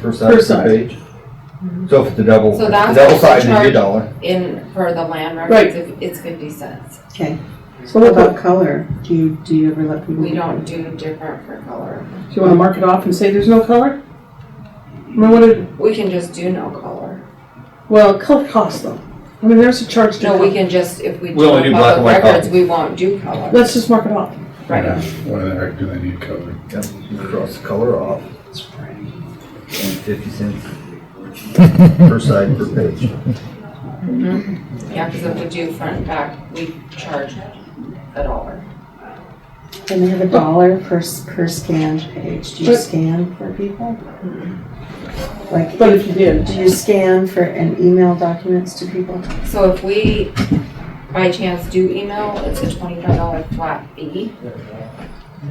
per side Per per side. page? So if it's a double, So if that's it's a double what they sided, it'd be a charge. dollar. in, for the land Right. records, if- it's fifty cents. Okay. So What what about, about color? Do you, do you ever let people? We don't do different for color. do you wanna mark it off and say there's no color? I mean, what did, We can just do no color. well, color costs though. I mean, there's a charge to No, we color. can just, if we do We only do public black and white records, we won't do color. Let's just mark it off. Right. Why the heck do they need color? Yep, you cross the color off. And fifty cents per side per page. Yeah, because if we do front and back, we charge a dollar. And they have a dollar per, s- per scanned page. Do you But- scan for people? Mm-hmm. Like, But if you did, do you scan for, and email documents to people? So if we by chance do email, it's a twenty-five dollar flat fee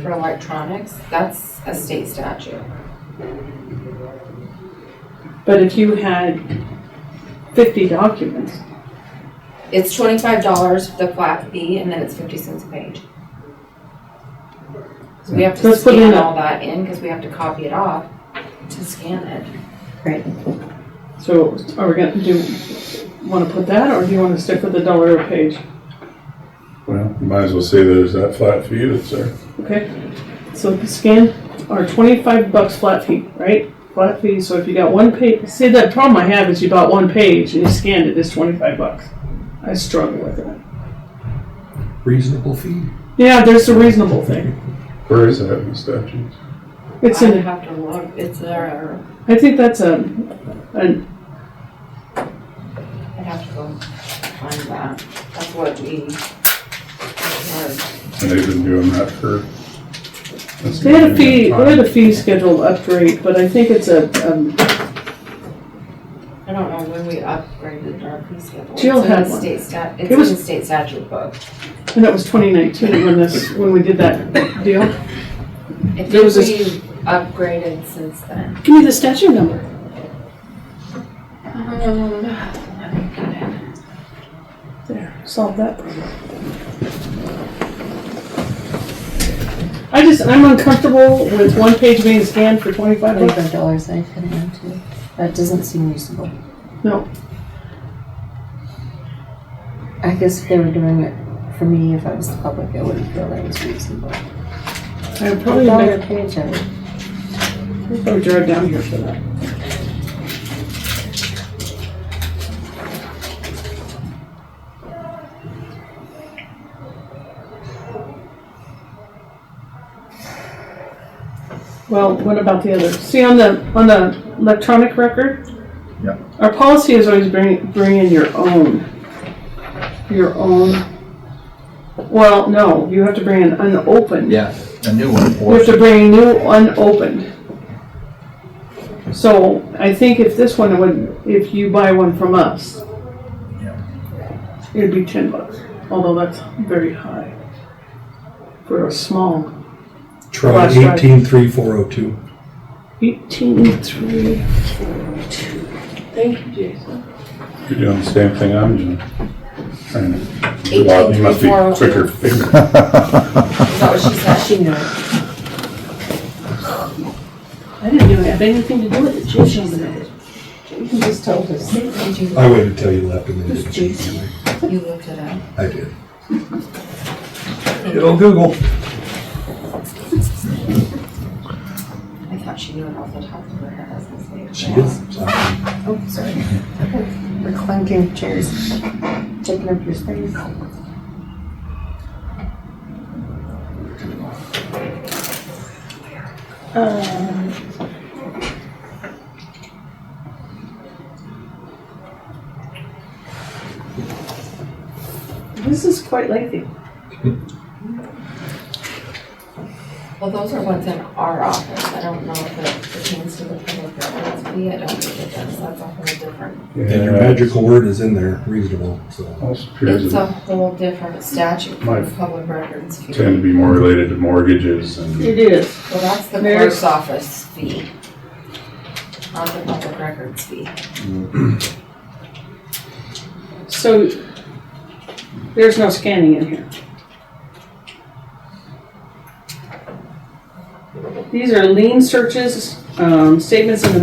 for electronics. That's a state statute. but if you had fifty documents, It's twenty-five dollars the flat fee, and then it's fifty cents a page. So we have to Let's put in scan a- all that in, because we have to copy it off to scan it. so are we gonna, do, you wanna put that, or do you wanna stick with the dollar a page? Well, you might as well say there's that flat fee that's there. Okay, so the scan are twenty-five bucks flat fee, right? Flat fee, so if you got one page, see, that problem I have is you bought one page and you scanned it, it's twenty-five bucks. I struggle with that. reasonable fee. Yeah, there's a reasonable thing. Where is that in the statutes? It's I in, have to look, it's there, I think that's a, a, I'd have to go find that. That's what we. And they've been doing that for. that's they had a been fee, doing they had that a fee schedule upgrade, but I think it's a, um, I don't know when we upgraded our fee schedule. Jill It's in had the one. State stat, it's It in was- the state statute book. and that was twenty nineteen when this, when we did that deal. I think There was we upgraded since then. Give me the statute number. Um, let me get it. There, solve that problem. I just, I'm uncomfortable with one page being scanned for twenty-five bucks. Twenty-five dollars I put in too. That doesn't seem reasonable. No. I guess if they were doing it for me, if I was the public, I wouldn't feel that was reasonable. I would A probably, dollar a make- page, I would. I'd probably drive down here for that. Well, what about the other? See, on the, on the electronic record? Yeah. Our policy is always bring, bring in your own, your own. Well, no, you have to bring in unopened. Yeah, a new one. We for have to bring new unopened. So I think if this one would, if you buy one from us, Yeah. it'd be ten bucks, although that's very high for a small Try Flash drive. eighteen three four oh two. eighteen three. Thank you, Jason. You're doing the same thing I'm doing. Trying to- Eight, Well, eight, You must be three, four, oh, two. quicker figuring. Is that what she said? She knew it. I didn't even have anything to do with it, Jason did it. You just told us. I waited till you left and then Who's did Jason? it. You looked it up. I did. Good old Google. I thought she knew it off the top of her head. I was gonna say. She did. So- Oh, sorry. We're clunking chairs, taking up your space. This is quite lengthy. Well, those are ones in our office. I don't know if it pertains to the public records fee. I don't think it does. That's a whole different. And your magical word is in there, reasonable, so. Most appears It's a to whole different statute for the Right. public records fee. tend to be more related to mortgages and It is. Well, that's the There's- clerk's office fee. Not the public records fee. So there's no scanning in here. These are lien searches, um, statements in the